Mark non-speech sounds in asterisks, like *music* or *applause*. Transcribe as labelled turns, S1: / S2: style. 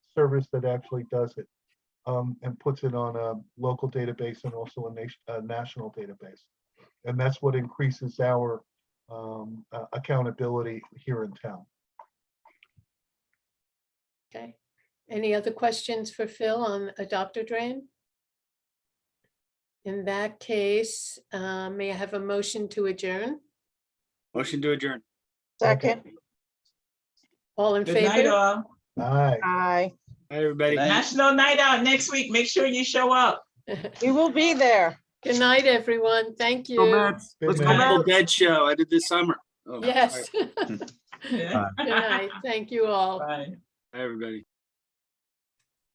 S1: service that actually does it um, and puts it on a local database and also a nation, a national database. And that's what increases our um, uh, accountability here in town.
S2: Okay. Any other questions for Phil on adopter drain? In that case, uh, may I have a motion to adjourn?
S3: Motion to adjourn.
S4: Second,
S2: All in
S5: Good night,
S2: favor?
S5: all.
S1: Aye.
S4: aye.
S3: Hi, everybody.
S5: National Night Out next week. Make sure you show up.
S2: Good
S4: We will be there.
S2: night, everyone. Thank
S3: Go
S2: you.
S3: Mets.
S1: Good
S3: Let's go
S5: night.
S3: Mets. Dead show. I did this summer. Oh, all
S2: Yes. *laughs*
S3: right.
S2: Good night. Thank you all.
S5: *laughs* Bye.
S3: Hi, everybody.